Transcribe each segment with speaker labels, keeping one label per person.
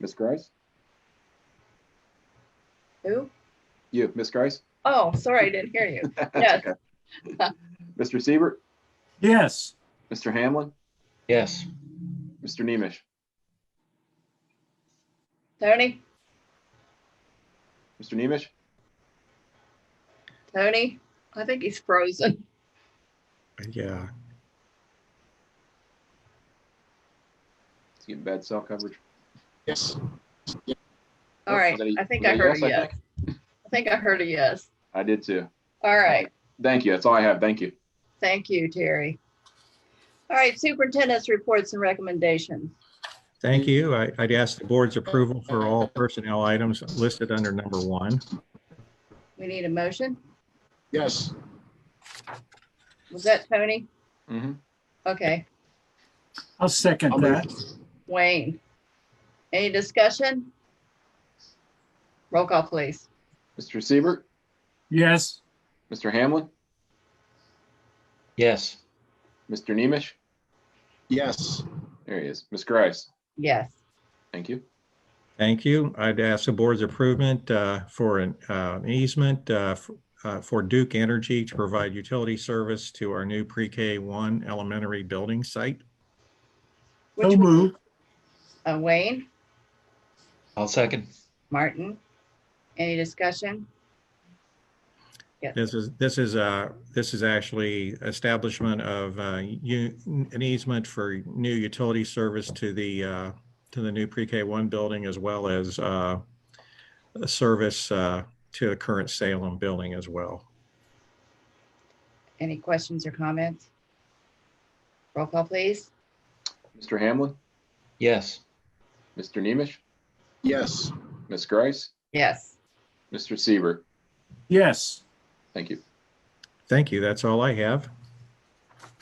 Speaker 1: Ms. Grice?
Speaker 2: Who?
Speaker 1: You, Ms. Grice?
Speaker 2: Oh, sorry, I didn't hear you.
Speaker 1: That's
Speaker 2: Yes.
Speaker 1: okay. Mr. Siebert,
Speaker 3: Yes.
Speaker 1: Mr. Hamlin,
Speaker 4: Yes.
Speaker 1: Mr. Nemish,
Speaker 2: Tony,
Speaker 1: Mr. Nemish,
Speaker 2: Tony, I think he's frozen.
Speaker 5: Yeah.
Speaker 1: it's getting bad cell coverage.
Speaker 4: Yes.
Speaker 2: All
Speaker 1: Was
Speaker 2: right,
Speaker 1: that a-
Speaker 2: I think
Speaker 1: was
Speaker 2: I
Speaker 1: that
Speaker 2: heard a
Speaker 1: yes,
Speaker 2: yes.
Speaker 1: think?
Speaker 2: I think I heard a yes.
Speaker 1: I did too.
Speaker 2: All right,
Speaker 1: Thank you. That's all I have. Thank you.
Speaker 2: thank you, Terry. All right, superintendent's reports and recommendations.
Speaker 5: Thank you. I- I'd ask the board's approval for all personnel items listed under number one.
Speaker 2: We need a motion.
Speaker 4: Yes.
Speaker 2: Was that Tony?
Speaker 1: Mm-hmm.
Speaker 2: Okay,
Speaker 3: I'll second that.
Speaker 2: Wayne. Any discussion? Roll call, please.
Speaker 1: Mr. Siebert,
Speaker 3: Yes.
Speaker 1: Mr. Hamlin,
Speaker 4: Yes.
Speaker 1: Mr. Nemish,
Speaker 4: Yes.
Speaker 1: there he is. Ms. Grice,
Speaker 2: Yes.
Speaker 1: thank you.
Speaker 5: Thank you. I'd ask the board's approval uh, for an uh, an easement uh, f- uh, for Duke Energy to provide utility service to our new pre-K one elementary building site.
Speaker 3: So
Speaker 2: Which
Speaker 3: move.
Speaker 2: Uh, Wayne,
Speaker 4: I'll second.
Speaker 2: Martin. Any discussion?
Speaker 5: This is, this is, uh, this is actually establishment of, uh, u- an easement for new utility service to the, uh, to the new pre-K one building as well as, uh, a service, uh, to the current Salem building as well.
Speaker 2: Any questions or comments? Roll call, please.
Speaker 1: Mr. Hamlin,
Speaker 4: Yes.
Speaker 1: Mr. Nemish,
Speaker 4: Yes.
Speaker 1: Ms. Grice,
Speaker 2: Yes.
Speaker 1: Mr. Siebert,
Speaker 3: Yes.
Speaker 1: thank you.
Speaker 5: Thank you. That's all I have.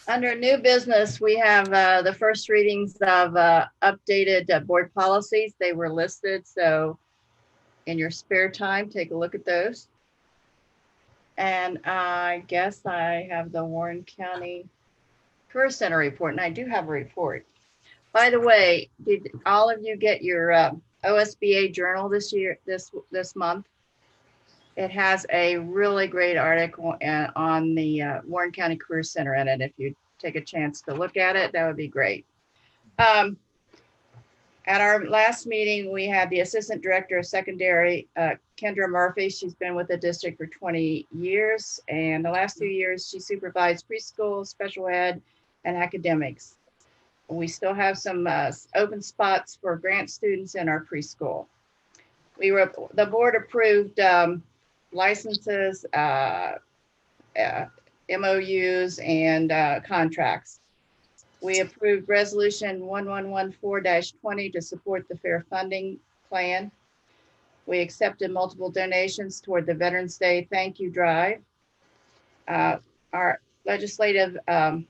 Speaker 2: Under new business, we have uh, the first readings of uh, updated uh, board policies. They were listed, so in your spare time, take a look at those. And I guess I have the Warren County Career Center report, and I do have a report. By the way, did all of you get your uh, OSBA journal this year, this, this month? It has a really great article uh, on the uh, Warren County Career Center in it. If you take a chance to look at it, that would be great. Um, At our last meeting, we had the Assistant Director of Secondary, uh, Kendra Murphy. She's been with the district for 20 years. And the last two years, she supervised preschool, special ed, and academics. We still have some uh, open spots for grant students in our preschool. We were, the board approved um, licenses, uh, uh, MOUs, and uh, contracts. We approved Resolution 1114-20 to support the fair funding plan. We accepted multiple donations toward the Veterans Day Thank You Drive. Uh, Our legislative um,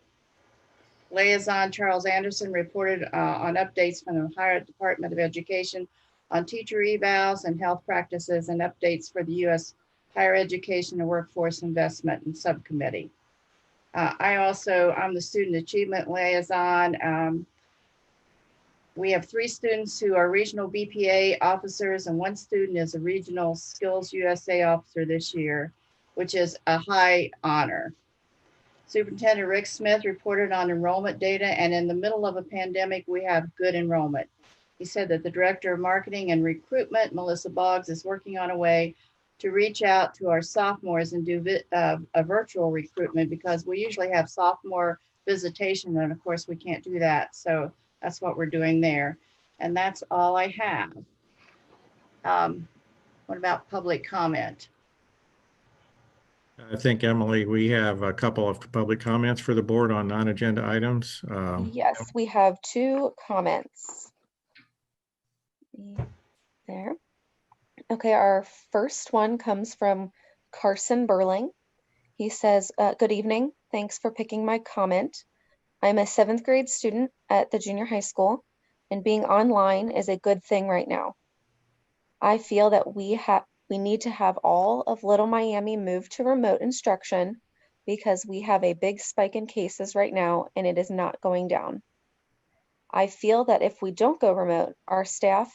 Speaker 2: liaison, Charles Anderson, reported uh, on updates from the Ohio Department of Education on teacher evals and health practices and updates for the U.S. Higher Education and Workforce Investment and Subcommittee. Uh, I also, I'm the Student Achievement Liaison. Um, We have three students who are regional BPA officers and one student is a Regional Skills USA officer this year, which is a high honor. Superintendent Rick Smith reported on enrollment data and in the middle of a pandemic, we have good enrollment. He said that the Director of Marketing and Recruitment, Melissa Boggs, is working on a way to reach out to our sophomores and do vi- uh, a virtual recruitment because we usually have sophomore visitation and of course we can't do that. So that's what we're doing there. And that's all I have. Um, What about public comment?
Speaker 5: I think, Emily, we have a couple of public comments for the board on non-agenda items. Um,
Speaker 6: Yes, we have two comments. Mm, There. Okay, our first one comes from Carson Burling. He says, uh, good evening. Thanks for picking my comment. I'm a seventh grade student at the junior high school and being online is a good thing right now. I feel that we have, we need to have all of Little Miami move to remote instruction because we have a big spike in cases right now and it is not going down. I feel that if we don't go remote, our staff